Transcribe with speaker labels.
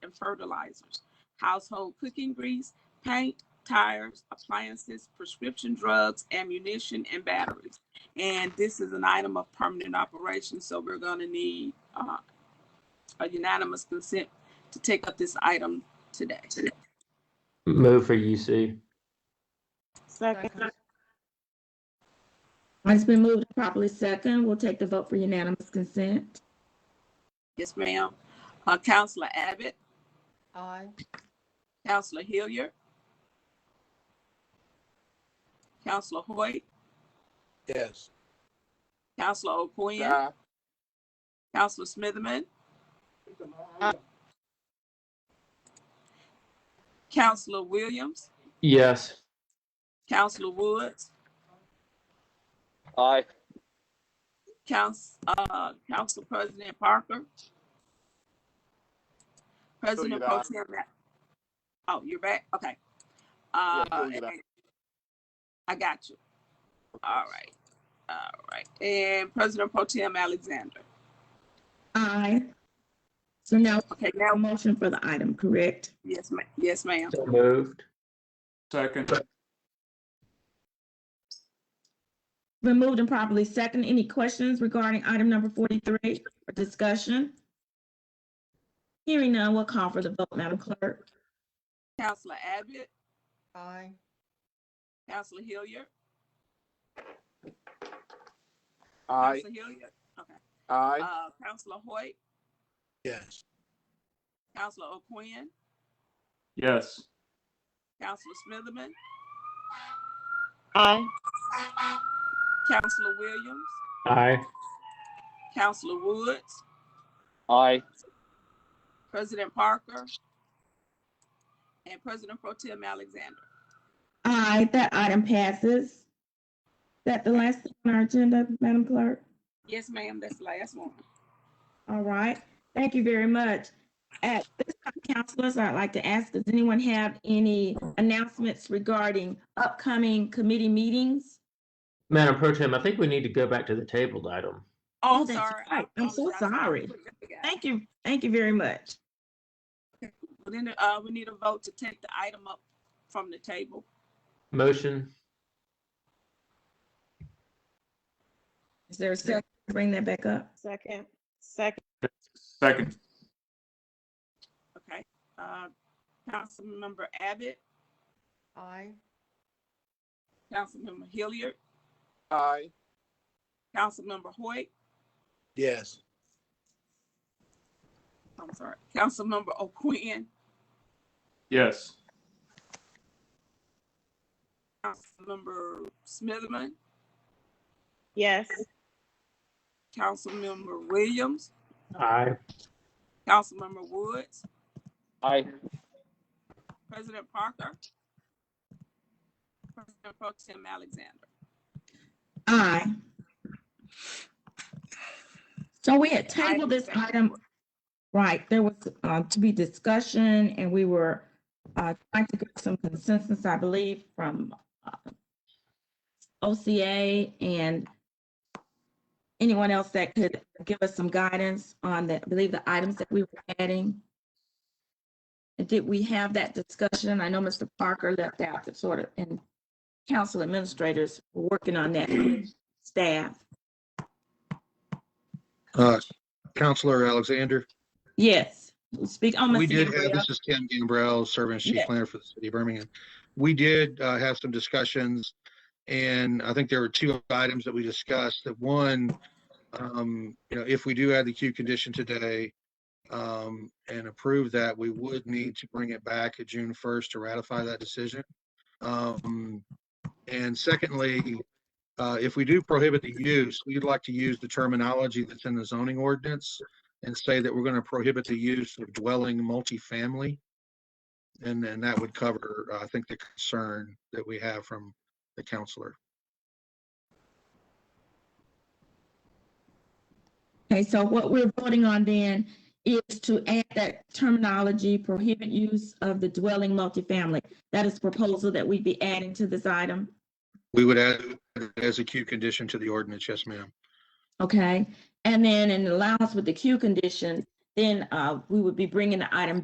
Speaker 1: and fertilizers, household cooking grease, paint, tires, appliances, prescription drugs, ammunition, and batteries. And this is an item of permanent operation, so we're gonna need uh, a unanimous consent to take up this item today.
Speaker 2: Move for E UC.
Speaker 3: Second.
Speaker 4: It's been moved and properly second. We'll take the vote for unanimous consent.
Speaker 1: Yes, ma'am. Uh, Counselor Abbott,
Speaker 3: Aye.
Speaker 1: Counselor Hilliard, Counselor Hoyt,
Speaker 5: Yes.
Speaker 1: Counselor O'Quinn,
Speaker 5: Aye.
Speaker 1: Counselor Smitherman, Counselor Williams,
Speaker 2: Yes.
Speaker 1: Counselor Woods,
Speaker 5: Aye.
Speaker 1: Council, uh, Council President Parker. President
Speaker 5: you're
Speaker 1: Pro
Speaker 5: back.
Speaker 1: Tem. Ra- Oh, you're back? Okay.
Speaker 5: Yeah,
Speaker 1: Uh,
Speaker 5: still you're back.
Speaker 1: and- I got you. All right. All right. And President Pro Tem Alexander.
Speaker 4: Aye. So now
Speaker 1: Okay,
Speaker 4: a
Speaker 1: now,
Speaker 4: motion for the item, correct?
Speaker 1: yes, ma'am. Yes, ma'am.
Speaker 2: So moved.
Speaker 6: Second.
Speaker 4: Been moved and properly second. Any questions regarding item number forty-three or discussion? Hearing none, we'll call for the vote, Madam Clerk.
Speaker 1: Counselor Abbott,
Speaker 3: Aye.
Speaker 1: Counselor Hilliard,
Speaker 5: Aye.
Speaker 1: Counselor Hilliard,
Speaker 5: Aye.
Speaker 1: uh, Counselor Hoyt,
Speaker 5: Yes.
Speaker 1: Counselor O'Quinn,
Speaker 6: Yes.
Speaker 1: Counselor Smitherman,
Speaker 3: Aye.
Speaker 1: Counselor Williams,
Speaker 2: Aye.
Speaker 1: Counselor Woods,
Speaker 5: Aye.
Speaker 1: President Parker, and President Pro Tem Alexander.
Speaker 4: Aye, that item passes. That the last thing on our agenda, Madam Clerk?
Speaker 1: Yes, ma'am, that's the last one.
Speaker 4: All right, thank you very much. At this time, counselors, I'd like to ask, does anyone have any announcements regarding upcoming committee meetings?
Speaker 2: Madam Pro Tem, I think we need to go back to the tabled item.
Speaker 1: Oh,
Speaker 4: Oh, that's
Speaker 1: sorry. I
Speaker 4: right. I'm so
Speaker 1: apologize. I
Speaker 4: sorry.
Speaker 1: forgot.
Speaker 4: Thank you, thank you very much.
Speaker 1: Well, Then, uh, we need a vote to take the item up from the table.
Speaker 2: Motion.
Speaker 4: Is there a second to bring that back up?
Speaker 3: Second. Second.
Speaker 6: Second.
Speaker 1: Okay, uh, Councilmember Abbott,
Speaker 3: Aye.
Speaker 1: Councilmember Hilliard,
Speaker 5: Aye.
Speaker 1: Councilmember Hoyt,
Speaker 5: Yes.
Speaker 1: I'm sorry, Councilmember O'Quinn,
Speaker 6: Yes.
Speaker 1: Councilmember Smitherman,
Speaker 3: Yes.
Speaker 1: Councilmember Williams,
Speaker 2: Aye.
Speaker 1: Councilmember Woods,
Speaker 5: Aye.
Speaker 1: President Parker, President Pro Tem Alexander.
Speaker 4: Aye. So we had tabled this item, right, there was uh, to be discussion and we were uh, trying to get some consensus, I believe, from uh, OCA and anyone else that could give us some guidance on the, I believe, the items that we were adding. And Did we have that discussion? I know Mr. Parker left out the sort of, and council administrators were working on that with staff.
Speaker 7: Uh, Counselor Alexander,
Speaker 4: Yes, speak on
Speaker 7: we
Speaker 4: Ms.
Speaker 7: did have,
Speaker 4: Gabrielle.
Speaker 7: this is Ken Gambrell, Serving as Chief
Speaker 4: Yes.
Speaker 7: Planner for the City of Birmingham. We did uh, have some discussions, and I think there were two items that we discussed. That one, um, you know, if we do add the queue condition today um, and approve that, we would need to bring it back at June 1st to ratify that decision. Um, And secondly, uh, if we do prohibit the use, we'd like to use the terminology that's in the zoning ordinance and say that we're going to prohibit the use of dwelling multifamily. And then that would cover, uh, I think, the concern that we have from the counselor.
Speaker 4: Okay, so what we're voting on then is to add that terminology prohibit use of the dwelling multifamily. That is proposal that we'd be adding to this item,
Speaker 7: We would add it as a Q condition to the ordinance, yes, ma'am.
Speaker 4: okay? And then in allowance with the Q condition, then uh, we would be bringing the item